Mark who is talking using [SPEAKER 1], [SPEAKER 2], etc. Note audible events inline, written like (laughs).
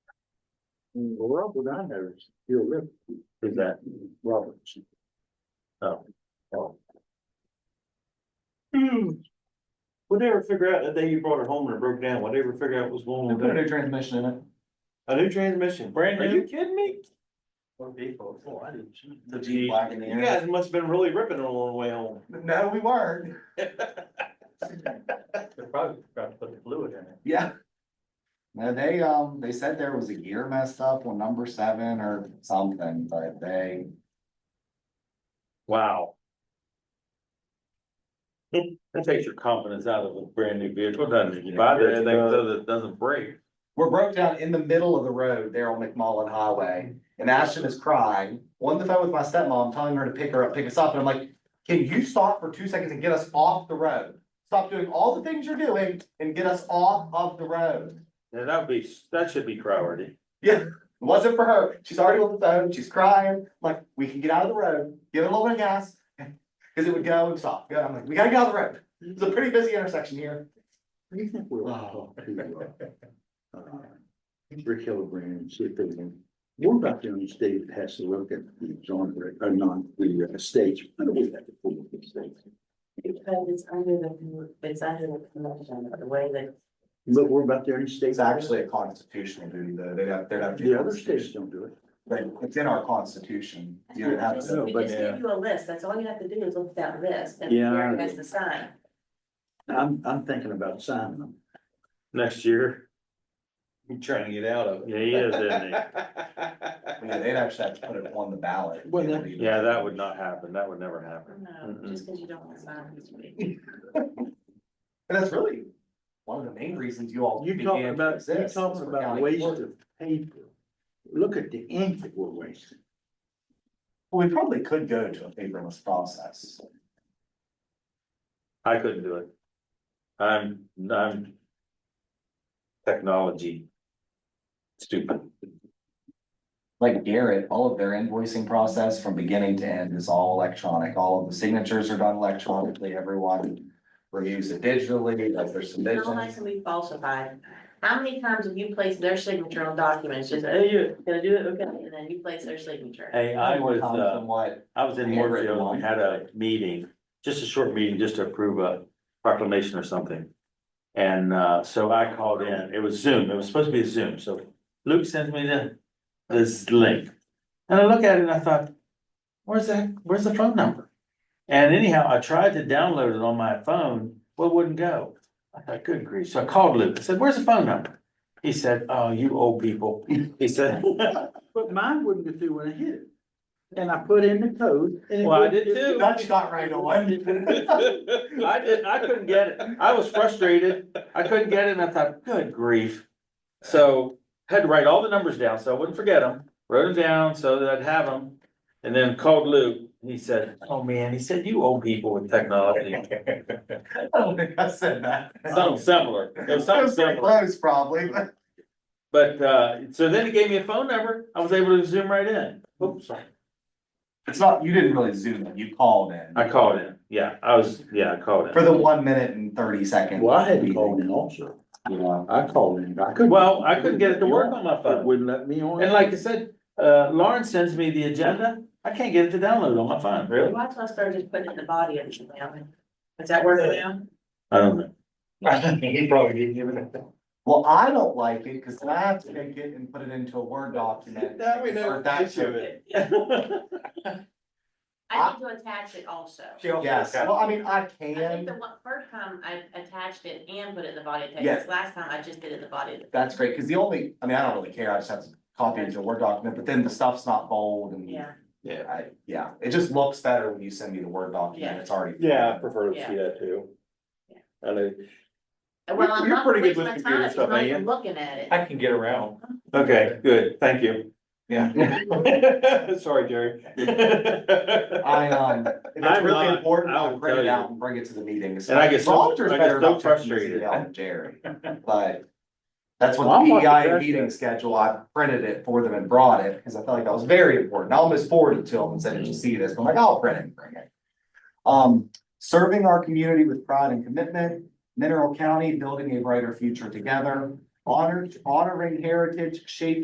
[SPEAKER 1] Well, Robert I know is your rep. Is that Roberts? Oh. oh.
[SPEAKER 2] Hmm. Whatever figure out, the day you brought it home and it broke down, whatever figure out was going
[SPEAKER 3] We
[SPEAKER 2] on
[SPEAKER 3] put a
[SPEAKER 2] there.
[SPEAKER 3] new transmission in it.
[SPEAKER 2] A new transmission, brand new. Are you kidding me?
[SPEAKER 3] What vehicle? Oh, I didn't. The
[SPEAKER 2] Jeep.
[SPEAKER 3] Jeep wagon
[SPEAKER 2] You
[SPEAKER 3] there.
[SPEAKER 2] guys must have been really ripping it on the way home.
[SPEAKER 3] No, we weren't.
[SPEAKER 4] They probably forgot to put the fluid in it.
[SPEAKER 3] Yeah. No, they, um, they said there was a gear messed up on number seven or something, but they,
[SPEAKER 2] Wow. That takes your confidence out of a brand new vehicle, doesn't it? You buy that thing so that it doesn't break.
[SPEAKER 3] were broke down in the middle of the road there on McMullen Highway. And Ashton is crying, on the phone with my stepmom, telling her to pick her up, pick us up, and I'm like, can you stop for two seconds and get us off the road? Stop doing all the things you're doing and get us off of the road.
[SPEAKER 2] Yeah, that would be, that should be priority.
[SPEAKER 3] It wasn't for her. She's already on the phone. She's crying. Like, we can get out of the road, give it a little bit of gas. (laughs) Cause it would go and stop. Yeah, I'm like, we gotta get out of the road. It's a pretty busy intersection here.
[SPEAKER 1] What do you think we'll talk to, uh, uh, Rick Hillebrand and see if they can, what about the only state that has to look at the exonerate, or non, the uh, states? I don't think that's a full of the states.
[SPEAKER 5] Because it's under the, it's under the convention, the way that.
[SPEAKER 1] But we're about the only state.
[SPEAKER 3] It's actually a constitutional duty though. They don't, they don't. do
[SPEAKER 1] The other states
[SPEAKER 3] constitution.
[SPEAKER 1] don't do it.
[SPEAKER 3] But it's in our constitution. You don't have to.
[SPEAKER 1] know,
[SPEAKER 5] We
[SPEAKER 1] but
[SPEAKER 5] just
[SPEAKER 2] yeah.
[SPEAKER 5] give you a list, that's all you have to do is look at that list and
[SPEAKER 1] Yeah.
[SPEAKER 5] where it has to sign.
[SPEAKER 1] I'm, I'm thinking about signing them.
[SPEAKER 2] Next year,
[SPEAKER 4] You're trying to get out of
[SPEAKER 2] yeah, he is, isn't he?
[SPEAKER 3] Yeah, they'd actually have to put it on the ballot.
[SPEAKER 1] Well, that-
[SPEAKER 2] Yeah, that would not happen. That would never happen.
[SPEAKER 5] No, just because you don't want to sign this week.
[SPEAKER 3] And that's really one of the main reasons you all.
[SPEAKER 1] You're
[SPEAKER 3] began
[SPEAKER 1] talking
[SPEAKER 3] to
[SPEAKER 1] about, you're
[SPEAKER 3] exist, was
[SPEAKER 1] talking
[SPEAKER 3] for
[SPEAKER 1] about
[SPEAKER 3] county
[SPEAKER 1] waste
[SPEAKER 3] clerk.
[SPEAKER 1] of paper. Look at the ink that we're wasting.
[SPEAKER 3] Well, We probably could go to a paperless process.
[SPEAKER 2] I couldn't do it. I'm, I'm. Technology. Stupid.
[SPEAKER 3] like Garrett, all of their invoicing process from beginning to end is all electronic. All of the signatures are done electronically. Everyone reviews it digitally, like there's some
[SPEAKER 5] How much
[SPEAKER 3] visions.
[SPEAKER 5] can be falsified? How many times have you placed their signature on documents, just, oh, you're gonna do it, okay, and then you place their signature?
[SPEAKER 2] Hey, I was,
[SPEAKER 3] Comes
[SPEAKER 2] uh,
[SPEAKER 3] from what- (laughs)
[SPEAKER 2] I was in Mooresville, we had a meeting, just a short meeting, just to approve a proclamation or something. And uh, so I called in, it was Zoom, it was supposed to be a Zoom, so Luke sends me the, this link. And I look at it and I thought, where's that, where's the phone number? And anyhow, I tried to download it on my phone, well, it wouldn't go. I thought, good grief, so I called Luke, I said, where's the phone number? He said, oh, you old people, (laughs)
[SPEAKER 3] (laughs)
[SPEAKER 2] he said.
[SPEAKER 1] But mine wouldn't get through when I hit it. And I put in the code. and it
[SPEAKER 2] Well, I
[SPEAKER 1] wouldn't
[SPEAKER 2] did
[SPEAKER 1] get
[SPEAKER 2] too.
[SPEAKER 3] That's not right
[SPEAKER 2] (laughs)
[SPEAKER 3] away.
[SPEAKER 2] I didn't, I couldn't get it. I was frustrated. I couldn't get it and I thought, good grief. So had to write all the numbers down so I wouldn't forget them, wrote them down so that I'd have them. And then called Luke and he said, oh man, he said, you old people with technology.
[SPEAKER 3] I don't think I said that.
[SPEAKER 2] Something similar, it
[SPEAKER 3] (laughs)
[SPEAKER 2] was something
[SPEAKER 3] Pretty
[SPEAKER 2] similar.
[SPEAKER 3] Close, probably. but-
[SPEAKER 2] But uh, so then he gave me a phone number. I was able to zoom right in. Oops, sorry.
[SPEAKER 3] It's not, you didn't really zoom in, you called in.
[SPEAKER 2] I called in. Yeah, I was, yeah, I called
[SPEAKER 3] For
[SPEAKER 2] in.
[SPEAKER 3] the one minute and thirty seconds.
[SPEAKER 1] Well, I had to call in also.
[SPEAKER 3] You know,
[SPEAKER 1] I called in, but I couldn't.
[SPEAKER 2] Well, I couldn't get it to work on my phone.
[SPEAKER 1] It wouldn't let me on.
[SPEAKER 2] And like I said, uh, Lauren sends me the agenda, I can't get it to download on my phone. Really?
[SPEAKER 5] Why don't I start just putting it in the body of the email? Is that working now?
[SPEAKER 2] I don't know.
[SPEAKER 4] He probably didn't give it a.
[SPEAKER 3] Well, I don't like it, cause then I have to take it and put it into a Word
[SPEAKER 2] (laughs)
[SPEAKER 3] document.
[SPEAKER 4] That we know
[SPEAKER 3] Or that-
[SPEAKER 4] the issue is.
[SPEAKER 5] I need to attach it also.
[SPEAKER 3] Yes, well, I mean, I
[SPEAKER 5] I think
[SPEAKER 3] can.
[SPEAKER 5] the one, first time I attached it and put it in the body of
[SPEAKER 3] Yeah.
[SPEAKER 5] text, last time I just did it in the body of the.
[SPEAKER 3] That's great, because the only, I mean, I don't really care, I just have to copy it into a Word document, but then the stuff's not bold and.
[SPEAKER 5] Yeah,
[SPEAKER 3] I, yeah, it just looks better when you send me the Word document,
[SPEAKER 5] Yeah.
[SPEAKER 3] it's already.
[SPEAKER 2] Yeah, I prefer
[SPEAKER 5] to see
[SPEAKER 2] that too.
[SPEAKER 5] Yeah.
[SPEAKER 2] I mean,
[SPEAKER 5] well, I'm
[SPEAKER 2] you're
[SPEAKER 5] not
[SPEAKER 2] pretty good
[SPEAKER 5] wasting
[SPEAKER 2] with
[SPEAKER 5] my
[SPEAKER 2] computer
[SPEAKER 5] time, if
[SPEAKER 2] stuff,
[SPEAKER 5] I'm not
[SPEAKER 2] ain't you?
[SPEAKER 5] even looking at it.
[SPEAKER 4] I can get around.
[SPEAKER 2] okay, good, thank
[SPEAKER 4] (laughs)
[SPEAKER 2] you.
[SPEAKER 4] Yeah.
[SPEAKER 2] Sorry, Jerry.
[SPEAKER 3] (laughs) I, um, if it's
[SPEAKER 2] I'm
[SPEAKER 3] really
[SPEAKER 2] not-
[SPEAKER 3] important,
[SPEAKER 2] I
[SPEAKER 3] I'll
[SPEAKER 2] will
[SPEAKER 3] print
[SPEAKER 2] tell
[SPEAKER 3] it
[SPEAKER 2] you.
[SPEAKER 3] out and bring it to the meetings.
[SPEAKER 2] (laughs) And I get so-
[SPEAKER 3] Volunteers
[SPEAKER 2] I get
[SPEAKER 3] better
[SPEAKER 2] so
[SPEAKER 3] not touch this
[SPEAKER 2] frustrated.
[SPEAKER 3] email than Jerry, (laughs) but that's
[SPEAKER 1] Well,
[SPEAKER 3] what
[SPEAKER 1] I'm
[SPEAKER 3] the
[SPEAKER 1] not
[SPEAKER 3] PEI
[SPEAKER 1] impressed
[SPEAKER 3] meeting
[SPEAKER 1] yet.
[SPEAKER 3] schedule, I printed it for them and brought it, because I felt like that was very important. I almost forwarded to them and said, did you see this? But I'm like, I'll print it and bring it. Um, serving our community with pride and commitment, Mineral County, building a brighter future together, honor, honoring heritage, shaping.